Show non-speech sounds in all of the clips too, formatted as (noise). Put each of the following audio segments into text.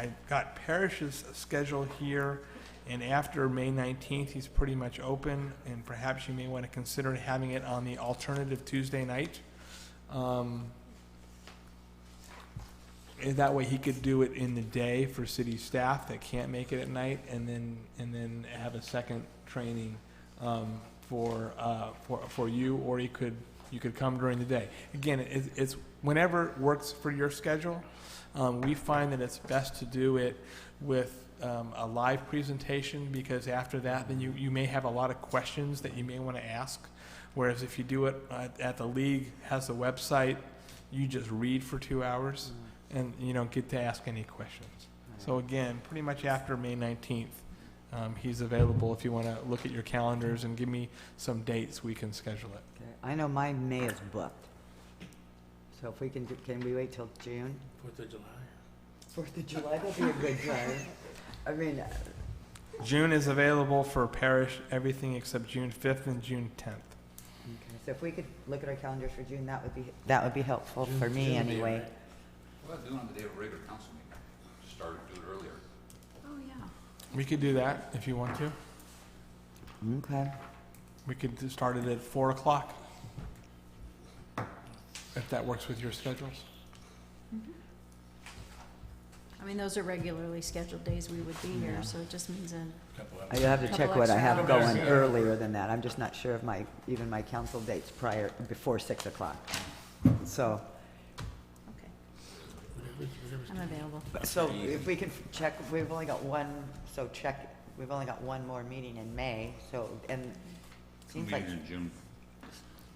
I've got Parrish's schedule here, and after May 19th, he's pretty much open, and perhaps you may want to consider having it on the alternative Tuesday night. Um, and that way he could do it in the day for city staff that can't make it at night, and then, and then have a second training um, for, uh, for, for you, or he could, you could come during the day. Again, it, it's whenever works for your schedule. Um, we find that it's best to do it with um, a live presentation because after that, then you, you may have a lot of questions that you may want to ask. Whereas if you do it at, at the league, has a website, you just read for two hours and you don't get to ask any questions. So again, pretty much after May 19th, um, he's available if you want to look at your calendars and give me some dates we can schedule it. Okay, I know my May is booked. So if we can, do- can we wait till June? Fourth of July. Fourth of July, that'd be a (laughs) good time. I mean, uh, June is available for parish, everything except June 5th and June 10th. okay, so if we could look at our calendars for June, that would be, that would be helpful for me June would be anyway. alright. Well, do it on the day of a regular council meeting, Just start, do it earlier. Oh, yeah. We could do that if you want to. Okay. We could do- start it at four o'clock. If that works with your schedules. I mean, those are regularly scheduled days we would be here, so it just means in. Couple I of- have to Couple check what I extra have hours. going earlier than that. I'm just not sure of my, even my council dates prior, before six o'clock. So, okay, Whatever's- whatever's- I'm available. so if we could check, we've only got one, so check, we've only got one more meeting in May, so, and it seems like Meeting in June.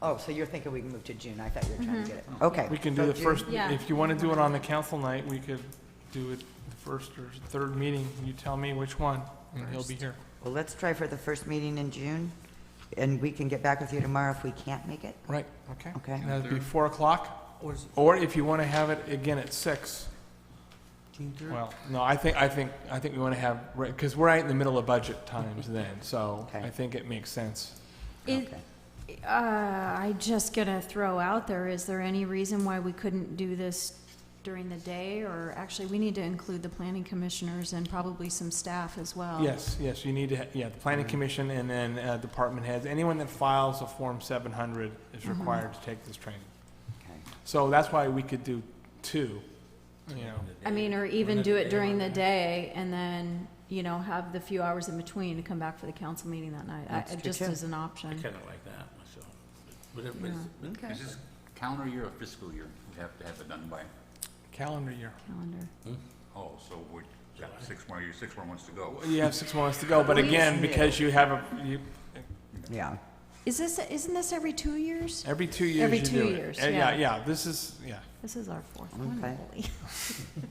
Oh, so you're thinking we can move to June, I thought you were trying Mm-hmm. to get it, Mhm. okay. We can so do the June- first, Yeah. if you want to do it on the council night, we could do it the first or third meeting. You tell me which one, and he'll be here. Well, let's try for the first meeting in June, and we can get back with you tomorrow if we can't make it, Right, okay. okay? And that'd be four o'clock, or if you want to have it again at six. Well, no, I think, I think, I think we want to have, because we're right in the middle of budget times then, so Okay. I think it makes sense. Is- Okay. Uh, I just gonna throw out there, is there any reason why we couldn't do this during the day? Or actually, we need to include the planning commissioners and probably some staff as well. Yes, yes, you need to, ha- yeah, the Mm-hmm. planning commission and then uh, department heads, anyone that files a Form 700 is required to take this training. Okay. So that's why we could do two, you know. I mean, or even do it during the day and then, you know, have the few hours in between to come back for the council meeting that night. I- That's true, Just too. as an I option. kind of like that myself. Whatever, but it's- but Okay. Is this calendar year or fiscal year? We have to have it done by, Calendar year. Calendar. oh, so we got six more, years, six more months to go. Well, You have six months to go, but We- again, because you have, a you, Yeah, Is this, isn't this every two years? every two years Every you two do it. years, Uh, yeah. Yeah, this is, yeah. This is our fourth one, one, I Okay. holy.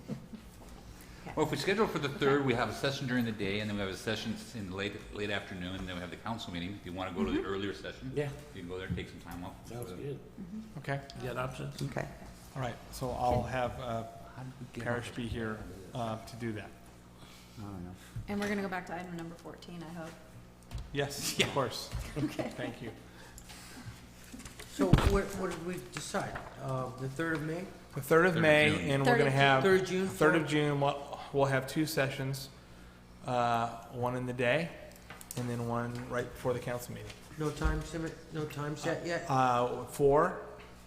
Well, if we schedule for the third, we have a session during the day, and then we have a session in the late, late afternoon, and then we have the council meeting. If you want to go to the earlier session, Mm-hmm. Yeah. you can go there and take some time off. Sounds good. Okay, You got options? okay, all right, so I'll have uh, How did we get Parrish on be here uh, to do that. I don't know. And we're gonna go back to item number fourteen, I hope. Yes, of course. Okay. Thank you. So what, what did we decide? Uh, the third of May? The third of Third of May, June. and we're Third gonna of have. Third of June? Third of June, we'll, we'll have two sessions, uh, one in the day, and then one right before the council meeting. No time limit, no time set yet? Uh, four,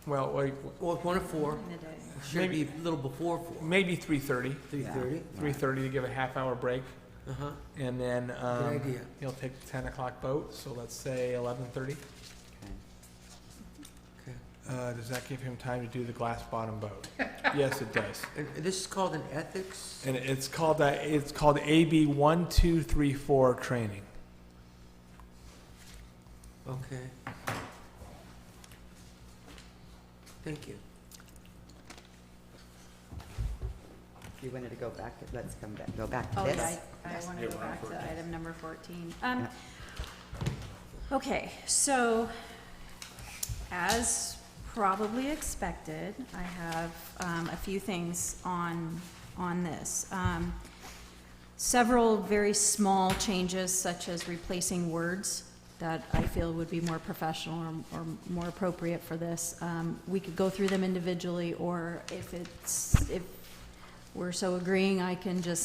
well, wait, Well, it's one to four, In the day. should be a little before four, maybe three thirty. three thirty, Three thirty to give a half hour break, uh-huh, and then, good um, idea. you'll take the ten o'clock boat, so let's say eleven thirty. Okay. Okay. Uh, does that give him time to do the glass bottom (laughs) boat? Yes, it does. And and this is called an ethics? And it's called, uh, it's called AB one, two, three, four training. Okay. Thank you. If you wanted to go back, let's come back, go back to Oh, this. yeah, I, I wanna go back to item number fourteen. Um, okay, so, as probably expected, I have, um, a few things on, on this. Um, several very small changes, such as replacing words that I feel would be more professional or, or more appropriate for this. Um, we could go through them individually, or if it's, if we're so agreeing I can just